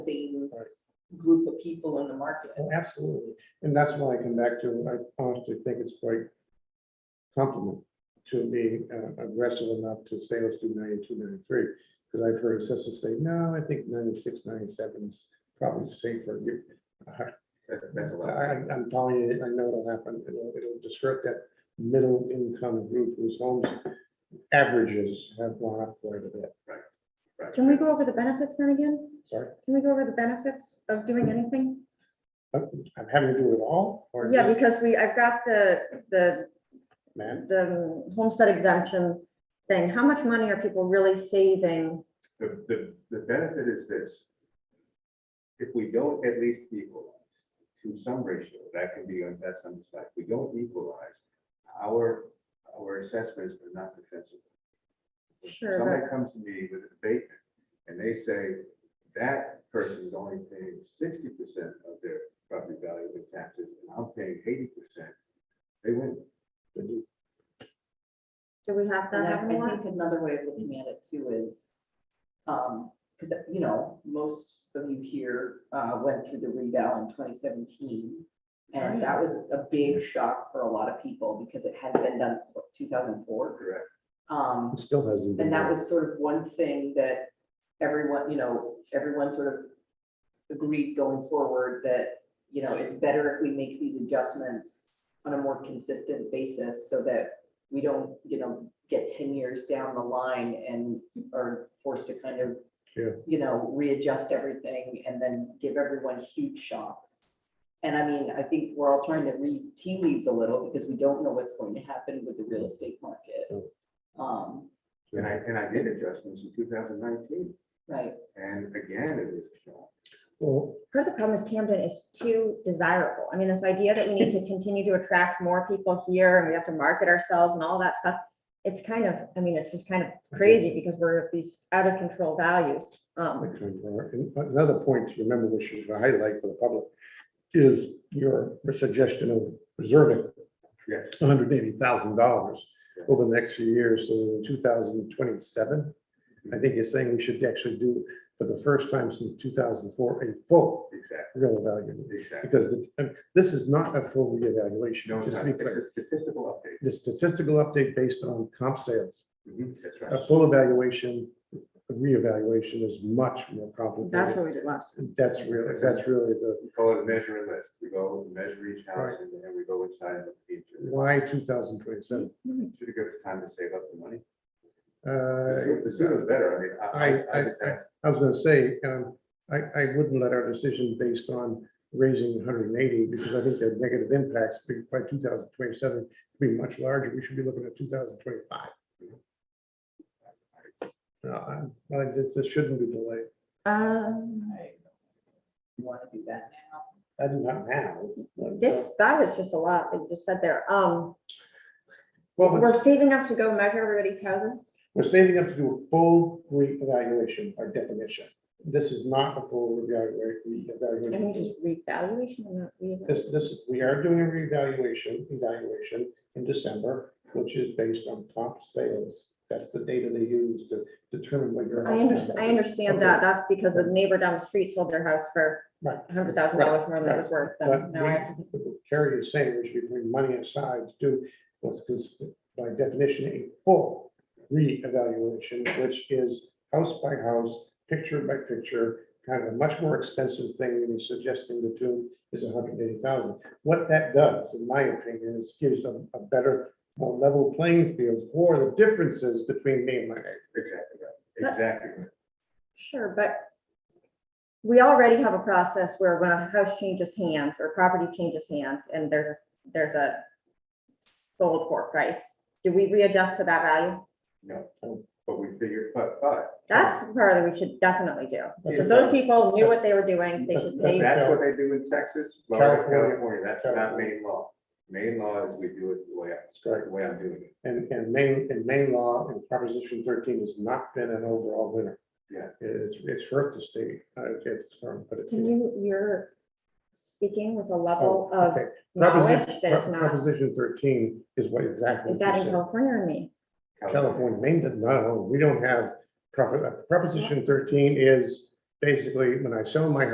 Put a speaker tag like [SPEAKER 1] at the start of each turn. [SPEAKER 1] group of people in the market.
[SPEAKER 2] Oh, absolutely. And that's why I come back to, I honestly think it's quite compliment to being uh, aggressive enough to say, let's do ninety-two, ninety-three. Because I've heard assessors say, no, I think 96, 97 is probably safer. You-
[SPEAKER 3] That- That's a
[SPEAKER 2] I,
[SPEAKER 3] lot.
[SPEAKER 2] I- I'm telling you, I know it'll happen. It'll, it'll disrupt that middle income group whose homes averages have gone up quite a bit.
[SPEAKER 3] Right.
[SPEAKER 4] Can we go over the benefits then again?
[SPEAKER 2] Sorry,
[SPEAKER 4] Can we go over the benefits of doing anything?
[SPEAKER 2] I'm having to do it all or
[SPEAKER 4] Yeah,
[SPEAKER 2] just
[SPEAKER 4] because we, I've got the, the,
[SPEAKER 2] man?
[SPEAKER 4] the homestead exemption thing. How much money are people really saving?
[SPEAKER 3] The, the, the benefit is this. If we don't at least equalize to some ratio, that can be, on that's on the side, if we don't equalize, our, our assessments are not defensible. If
[SPEAKER 4] Sure,
[SPEAKER 3] Somebody comes to me with an abatement and they say, that person is only paying sixty percent of their property value in taxes, and I'm paying eighty percent. They win.
[SPEAKER 4] Do we have
[SPEAKER 1] And
[SPEAKER 4] that?
[SPEAKER 1] I
[SPEAKER 4] happen a
[SPEAKER 1] I
[SPEAKER 4] lot?
[SPEAKER 1] think another way of looking at it too is, um, because, you know, most of you here, uh, went through the rebound in twenty seventeen. And that was a big shock for a lot of people because it hadn't been done since two thousand four.
[SPEAKER 3] Correct.
[SPEAKER 1] Um,
[SPEAKER 2] It Still hasn't. been
[SPEAKER 1] and that
[SPEAKER 2] done.
[SPEAKER 1] was sort of one thing that everyone, you know, everyone sort of agreed going forward that, you know, it's better if we make these adjustments on a more consistent basis so that we don't, you know, get ten years down the line and are forced to kind of,
[SPEAKER 2] Yeah.
[SPEAKER 1] you know, readjust everything and then give everyone huge shocks. And I mean, I think we're all trying to read tea leaves a little because we don't know what's going to happen with the real estate
[SPEAKER 2] Yeah.
[SPEAKER 1] market. Um,
[SPEAKER 3] And I, and I did adjustments in two thousand nineteen,
[SPEAKER 1] Right,
[SPEAKER 3] and again, it is a shock.
[SPEAKER 2] Well,
[SPEAKER 4] Part of the problem is Camden is too desirable. I mean, this idea that we need to continue to attract more people here and we have to market ourselves and all that stuff. It's kind of, I mean, it's just kind of crazy because we're at these out of control values.
[SPEAKER 2] I
[SPEAKER 4] Um,
[SPEAKER 2] couldn't remember. And uh, Another point to remember, which is a highlight for the public, is your suggestion of reserving
[SPEAKER 3] Yes.
[SPEAKER 2] hundred eighty thousand dollars over the next few years, so in two thousand twenty-seven. I think you're saying we should actually do, for the first time since two thousand four, a full
[SPEAKER 3] Exactly,
[SPEAKER 2] real evaluation.
[SPEAKER 3] exactly.
[SPEAKER 2] Because the- and this is not a full reevaluation,
[SPEAKER 3] No, it's
[SPEAKER 2] just
[SPEAKER 3] not.
[SPEAKER 2] to be
[SPEAKER 3] It's
[SPEAKER 2] clear.
[SPEAKER 3] a statistical update.
[SPEAKER 2] The statistical update based on comp sales.
[SPEAKER 3] That's
[SPEAKER 2] Mm-hmm. A
[SPEAKER 3] right.
[SPEAKER 2] full evaluation, reevaluation is much more complicated.
[SPEAKER 4] that's what we did last.
[SPEAKER 2] That's really, that's really the,
[SPEAKER 3] We call it a measure and list. We go and measure each house
[SPEAKER 2] Right.
[SPEAKER 3] and then we go inside and look at each. of them.
[SPEAKER 2] why two thousand twenty-seven?
[SPEAKER 3] Should have given us time to save up the money. The sooner- the sooner
[SPEAKER 2] I,
[SPEAKER 3] the better. I mean, I,
[SPEAKER 2] I,
[SPEAKER 3] I, I think that-
[SPEAKER 2] Uh, I was gonna say, um, I, I wouldn't let our decision based on raising hundred and eighty, because I think the negative impacts be- by two thousand twenty-seven be much larger, we should be looking at two thousand twenty-five. No, I'm- like, this, this shouldn't be delayed,
[SPEAKER 4] Um,
[SPEAKER 1] I want to do that now.
[SPEAKER 2] I do not now. but, uh,
[SPEAKER 4] this, that was just a lot that you just said there. Um,
[SPEAKER 2] Well,
[SPEAKER 4] we're
[SPEAKER 2] it's-
[SPEAKER 4] saving up to go measure everybody's houses.
[SPEAKER 2] we're saving up to do a full reevaluation by definition, this is not a full reevaluate- reevaluation.
[SPEAKER 4] I think just revaluation and not
[SPEAKER 2] This,
[SPEAKER 4] reevaluation.
[SPEAKER 2] this, we are doing a reevaluation, evaluation in December, which is based on comp sales. That's the data they use to determine what your.
[SPEAKER 4] I understand, I understand that. That's because the neighbor down the street sold their house for
[SPEAKER 2] Right.
[SPEAKER 4] a hundred thousand dollars more than it was worth. So
[SPEAKER 2] But
[SPEAKER 4] now I have to
[SPEAKER 2] we- Carrie is saying we should be putting money aside to do what's cons- by definition a full reevaluation, which is house by house, picture by picture, kind of a much more expensive thing than you're suggesting the two is hundred and eighty thousand. What that does, in my opinion, is gives a, a better, more level playing field for the differences between me and my neighbor.
[SPEAKER 3] Exactly
[SPEAKER 4] But-
[SPEAKER 3] right. Exactly. right.
[SPEAKER 4] Sure, but we already have a process where when a house changes hands or property changes hands and there's, a- there's a sold for price, do we readjust to that value?
[SPEAKER 2] Oh.
[SPEAKER 3] No, but we figure, but, but
[SPEAKER 4] That's the part that we should definitely do.
[SPEAKER 2] That's
[SPEAKER 4] If
[SPEAKER 2] a-
[SPEAKER 4] those people knew what they were doing, they should pay.
[SPEAKER 3] that's what they do in Texas, Florida, California. That's not
[SPEAKER 2] California.
[SPEAKER 3] main law. Main law is we do it the way, I-
[SPEAKER 2] That's correct.
[SPEAKER 3] the way I'm doing it.
[SPEAKER 2] And, and main, and main law in Proposition thirteen has not been an overall winner.
[SPEAKER 3] Yeah.
[SPEAKER 2] It's, it's hurt the state, uh, I don't get this term, but. it-
[SPEAKER 4] Can you, uh, you're speaking with a
[SPEAKER 2] Oh,
[SPEAKER 4] level of
[SPEAKER 2] okay.
[SPEAKER 4] knowledge
[SPEAKER 2] Proposition-
[SPEAKER 4] that is
[SPEAKER 2] Pro-
[SPEAKER 4] not,
[SPEAKER 2] Proposition thirteen is what exactly.
[SPEAKER 4] is that
[SPEAKER 2] you
[SPEAKER 4] in
[SPEAKER 2] said.
[SPEAKER 4] California or me?
[SPEAKER 2] California, Maine does not, own- we don't have, proper- uh, Proposition thirteen is basically, when I sell my